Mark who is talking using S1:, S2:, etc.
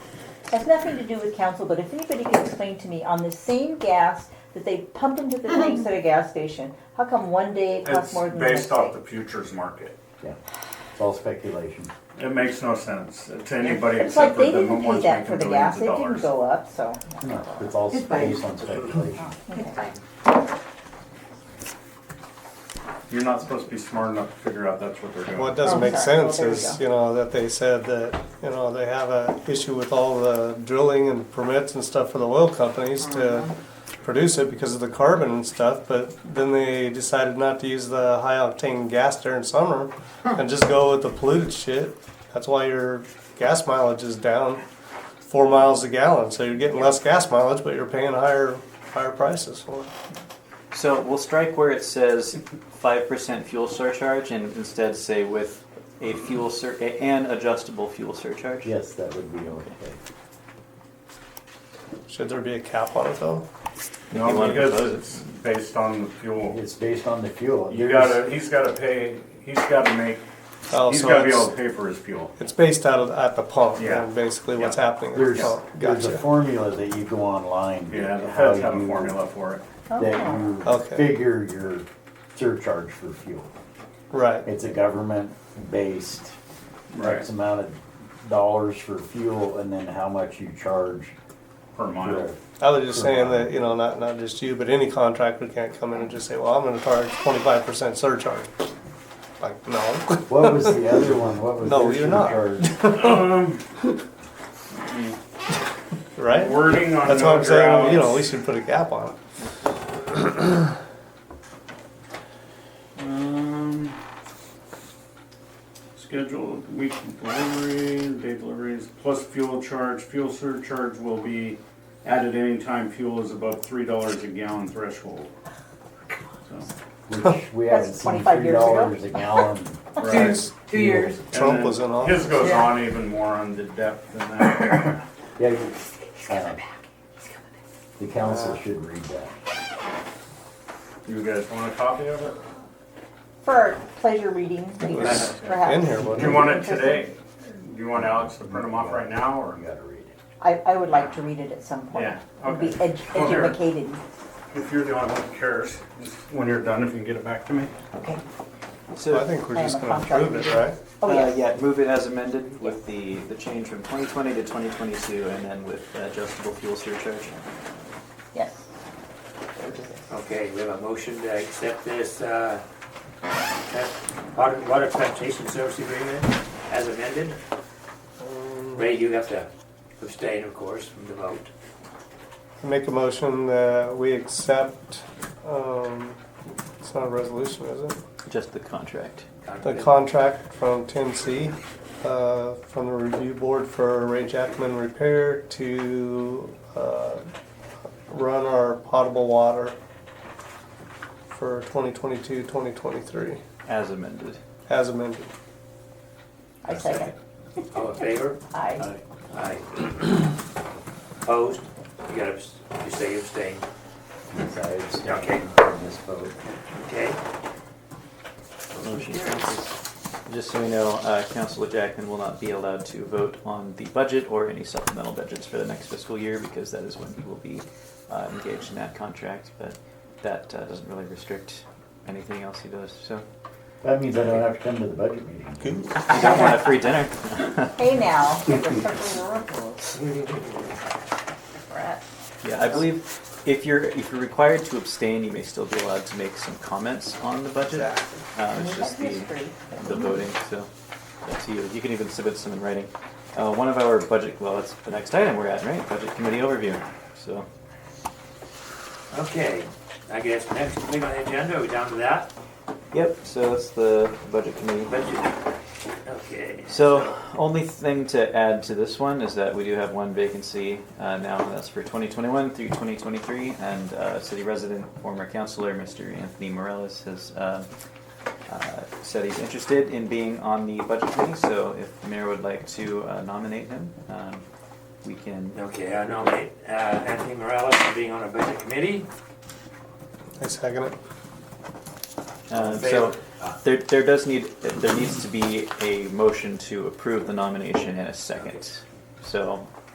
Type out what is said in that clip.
S1: has nothing to do with council, but if anybody can explain to me on the same gas that they pump into
S2: Mm-hmm.
S1: the tanks at a gas station, how come one day it costs
S3: It's
S1: more than the next
S3: based off the
S1: day?
S3: futures market.
S4: Yeah, it's all speculation.
S3: It makes no sense to anybody
S1: It's like
S3: except for
S1: they
S3: the
S1: didn't pay
S3: ones
S1: that for
S3: making
S1: the
S3: billions
S1: gas,
S3: of
S1: it didn't
S3: dollars.
S1: go up, so.
S4: No, it's all
S5: It's fine.
S4: based on speculation.
S5: It's fine.
S3: You're not supposed to be smart enough to figure out that's what they're
S6: What
S3: doing.
S1: Oh,
S6: doesn't make
S1: sorry. Well,
S6: sense
S1: there you
S6: is,
S1: go.
S6: you know, that they said that, you know, they have a issue with all the drilling and permits and stuff for the oil companies to
S1: Mm-hmm.
S6: produce it because of the carbon and stuff, but then they decided not to use the high octane gas during summer and just go with the polluted shit. That's why your gas mileage is down four miles a gallon, so you're getting less gas mileage, but you're paying higher, higher prices for it.
S2: So we'll strike where it says five percent fuel surcharge and instead say with a fuel sur, a- an adjustable fuel surcharge.
S4: Yes, that would be okay.
S6: Should there be a cap on it though?
S2: You
S3: No,
S2: wanna
S3: because
S2: propose it?
S3: it's based on the fuel.
S4: It's based on the fuel.
S3: You
S4: There's-
S3: gotta, he's gotta pay, he's gotta make,
S6: Oh,
S3: he's
S6: so
S3: gotta be
S6: it's-
S3: able to pay for his fuel.
S6: It's based out of at the pump.
S3: Yeah.
S6: And basically, what's
S3: Yeah.
S6: happening at the
S4: There's,
S6: pump.
S4: there's a
S6: Gotcha.
S4: formula that you go online.
S3: Yeah, the
S4: how
S3: feds have a
S4: you-
S3: formula for it.
S4: That
S6: Oh.
S4: you
S6: Okay.
S4: figure your surcharge for fuel.
S6: Right.
S4: It's a government-based,
S3: Right.
S4: X amount of dollars for fuel and then how much you charge.
S3: per
S4: for
S3: mile.
S6: I was just saying that you know, not not just you, but any contractor can't come in and just say, "Well, I'm going to charge 25 percent surcharge." Like, no.
S4: What was the other one? What was
S6: No,
S4: their
S6: you're not.
S4: surcharge?
S6: right.
S3: Wording on
S6: That's what
S3: no
S6: I'm saying. You know, we
S3: grounds.
S6: should put a cap on it.
S3: Um, Schedule of weekly delivery, day deliveries, plus fuel charge, fuel surcharge will be added anytime fuel is above three dollars a gallon threshold. So,
S4: Which we haven't
S1: That's
S4: seen
S1: 25
S4: three
S1: years ago.
S4: dollars a gallon.
S3: right.
S5: Two years.
S3: And
S6: Trump
S3: then
S6: was in
S3: His
S6: office.
S3: goes
S5: Yeah.
S3: on even more on the depth than that.
S4: Yeah, you- uh, The council should read that.
S3: You guys want a copy of it?
S1: For our pleasure reading, readers, perhaps.
S6: in here, wasn't
S3: Do you want it today? Do you want Alex to print them off right now, or?
S4: You gotta read it.
S1: I, I would like to read it at some point.
S3: Yeah,
S1: And Be
S3: okay.
S1: ed-
S3: Well, here.
S1: educated,
S3: If you're the only one who cares, just when you're done, if you can get it back to me.
S1: okay.
S2: So
S6: Well, I think we're
S1: I am
S6: just
S1: a
S6: going to
S1: contractor.
S6: prove it, right?
S1: Oh,
S2: uh,
S1: yes.
S2: yeah, move it as amended with the the change from 2020 to 2022, and then with adjustable fuel surcharge.
S1: Yes.
S5: Okay, we have a motion to accept this, uh, water, water transportation service agreement as amended. Ray, you have to abstain, of course, from the vote.
S6: Make a motion that we accept. Um, it's not a resolution, is it?
S2: Just the contract.
S6: The contract from 10C, uh, from the review board for Ray Jackman Repair to uh, run our potable water for 2022-2023
S2: As amended.
S6: as amended.
S1: I second.
S5: All in favor?
S2: Uh,
S1: Aye.
S5: Aye. Opposed? You gotta, abs- you say you abstain,
S4: Yes, I abstain
S5: Okay.
S4: from this vote.
S5: okay?
S2: Motion passes. Just so we know, uh, Councilor Jackman will not be allowed to vote on the budget or any supplemental budgets for the next fiscal year because that is when he will be uh, engaged in that contract. But that uh, doesn't really restrict anything else he does. So
S4: That means I don't have to come to the budget meeting.
S2: you don't want a free dinner.
S1: Hey now. Brett.
S2: Yeah, I believe if you're if you're required to abstain, you may still be allowed to make some comments on the budget. Uh, it's just the
S1: History.
S2: the voting, so that's you. You can even submit some in writing. Uh, one of our budget, well, that's the next item we're at, right? Budget committee overview. So
S5: Okay, I guess next thing on the agenda, are we down to that?
S2: Yep, so that's the budget committee.
S5: Budget. Okay.
S2: So, only thing to add to this one is that we do have one vacancy uh, now, and that's for 2021 through 2023, and uh, city resident, former councilor, Mr. Anthony Morales, has uh, uh, said he's interested in being on the budget committee, so if the mayor would like to uh, nominate him, um, we can.
S5: Okay, I nominate uh, Anthony Morales for being on a budget committee.
S6: I second it.
S2: Uh, so, there, there does need, there needs to be a motion to approve the nomination in a second. So,